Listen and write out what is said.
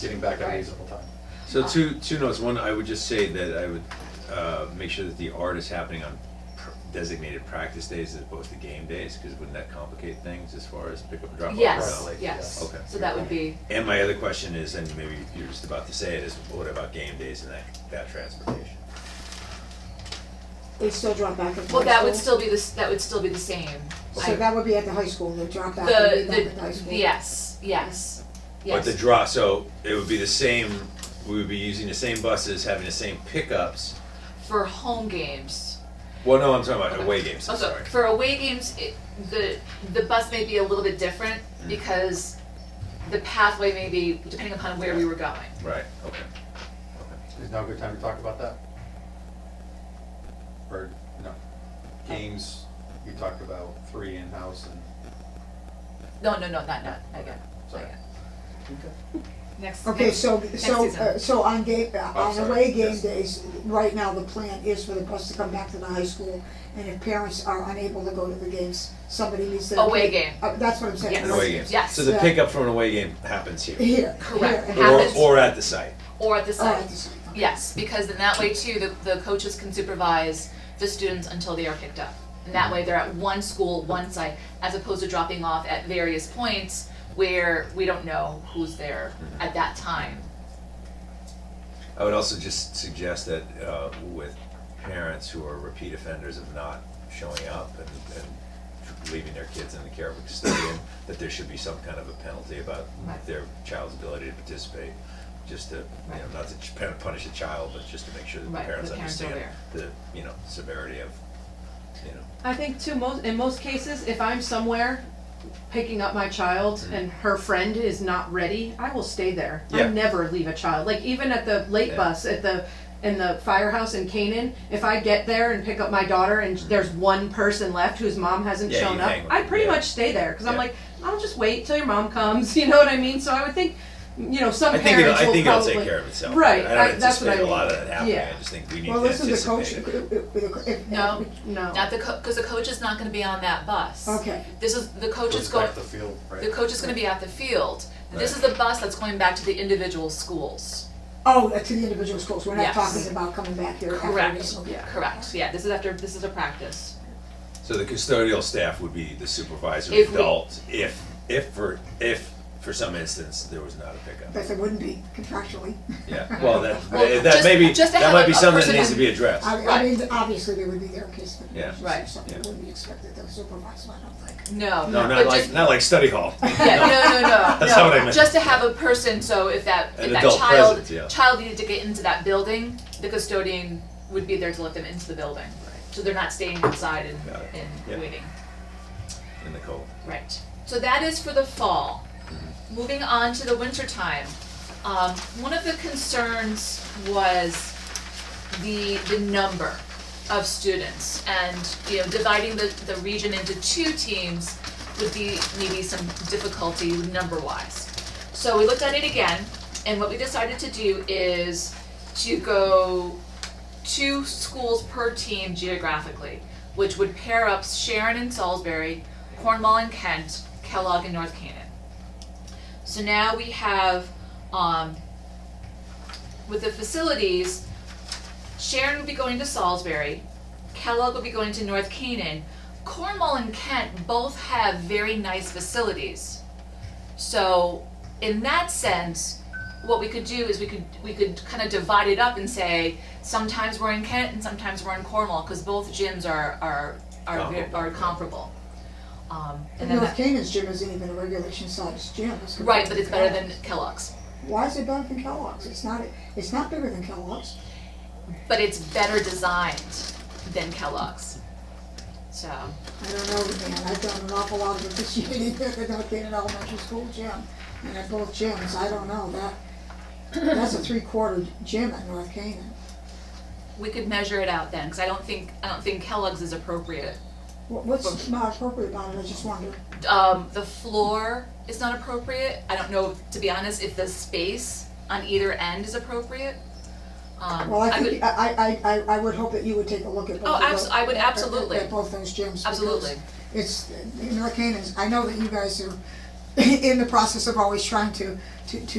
getting back at a reasonable time. So two, two notes, one, I would just say that I would, uh, make sure that the art is happening on pr- designated practice days as opposed to game days, cause wouldn't that complicate things as far as pick up and drop off? Right, Yes, like, yes. yes. So that would be, And my other question is, and maybe you're just about to say it, is what about game days and that, that transportation? They still drop back at the well, that high would still school. be the, s- that would still be the same. I- So that would be at the high school, the drop back would be back The, at the high the, school. yes, yes, But the yes, draw, so it would be the same, we would be using the same buses, having the same pickups. for home games. Well, no, I'm talking about away games, I'm Also, sorry. for away games, it, the, the bus may be a little bit different Mm. because the pathway may be, depending upon where we were going. Right, okay. Is now a good time to talk about that? Or, no? Games, you talked about three in-house and, No, no, no, not, not, not yet, not sorry. yet. Next, Okay, next, so, next so, season. uh, so on game, uh, Oh, on sorry, away game yes. days, right now, the plan is for the bus to come back to the high school, and if parents are unable to go to the games, somebody needs to. Away game. Uh, that's what I'm saying. Yes. An away game. Yes. So the Yeah. pickup from an away game happens here, Here, Correct. here, and- or, Happens. or at the site. or at the Oh, site. at the same time. Yes, because then that way too, the, the coaches can supervise the students until they are picked up. And that way they're at one school, one site, as opposed to dropping off at various points where we don't know who's there at that time. I would also just suggest that uh, with parents who are repeat offenders of not showing up and, and leaving their kids in the care of a custodian, that there should be some kind of a penalty about Right. their child's ability to participate. Just to, you know, Right. not to ch- pen- punish a child, but just to make sure that the Right, parents the parents are understand the, you know, severity of, you know. I think too, most, in most cases, if I'm somewhere picking up my child and her friend is not ready, I will stay there. Mm-hmm. Yeah. I never leave a child. Like even at the late Yeah. bus at the in the firehouse in Canaan, if I get there and pick up my daughter and there's one person left whose mom hasn't Mm-hmm. Yeah, shown you up, hang with I them, pretty yeah. much stay there because I'm Yeah. like, I'll just wait till your mom comes. You know what I mean? So I would think, you know, some I think it'll, parents I will think it'll probably take care of itself. Right, I don't I- that's what I anticipate a lot of mean. that happening, I Yeah. just think we need Well, to listen, the coach, anticipate it. if, if. No, No. not the co- cause the coach is not gonna be on that bus. Okay. This is, the coach is Goes going, back to field, right? the coach is gonna be at the field. This is Right. the bus that's going back to the individual schools. Oh, to the individual schools, we're Yes. not talking about coming back here after Correct, this, okay. Yeah. correct, yeah, this is after, this is a practice. So the custodial staff would be the supervisor If we- adult if, if for, if for some instance there was not a pickup. Because it wouldn't be contractually. Yeah, well, that, Well, that just- maybe, just to that have might a- be a something that person needs in- to be addressed. I, I Right. mean, obviously, they would be there in case of Yeah. emergency or Right. something, Yeah. wouldn't be expected to supervise one of like. No, No, but not just like, not like study hall. Yeah, no, no, no, no. That's not what I meant. Just to have a person, so if that An if that adult child presence, yeah. child needed to get into that building, the custodian would be there to let them into the building. So they're not staying outside and, Got it. and Yeah. waiting. In the cold. Right. So that is for the fall. Moving on to the winter time. Um, one of the concerns was the the number of students and you know dividing the, the region into two teams would be maybe some difficulty number wise. So we looked at it again and what we decided to do is to go two schools per team geographically, which would pair up Sharon and Salisbury, Cornwall and Kent, Kellogg and North Canaan. So now we have, um, with the facilities, Sharon will be going to Salisbury, Kellogg will be going to North Canaan. Cornwall and Kent both have very nice facilities. So in that sense, what we could do is we could we could kind of divide it up and say sometimes we're in Kent and sometimes we're in Cornwall because both gyms are are are ve- Comparable. are comparable. Um, and And then North that, Canaan's gym isn't even a regulation sized gym. It's right, but compared it's to better than Kellogg's. Kellogg's. Why is it better than Kellogg's? It's not, it's not bigger than Kellogg's. But it's better designed than Kellogg's. So I don't know, man, I've done an awful lot of it this year, the North Canaan Elementary School gym, and at both gyms, I don't know, that, that's a three quarter gym at North Canaan. we could measure it out then because I don't think I don't think Kellogg's is appropriate. What- What's not appropriate about it, I just wonder. um, the floor is not appropriate. I don't know, to be honest, if the space on either end is appropriate. Um, Well, I would- think, I, I, I, I would hope that you would take a look at both Oh, of abs- those- I would at- at- absolutely. At both those gyms. because Absolutely. It's, North Canaan's, I know that you guys are in the process of always trying to, to, to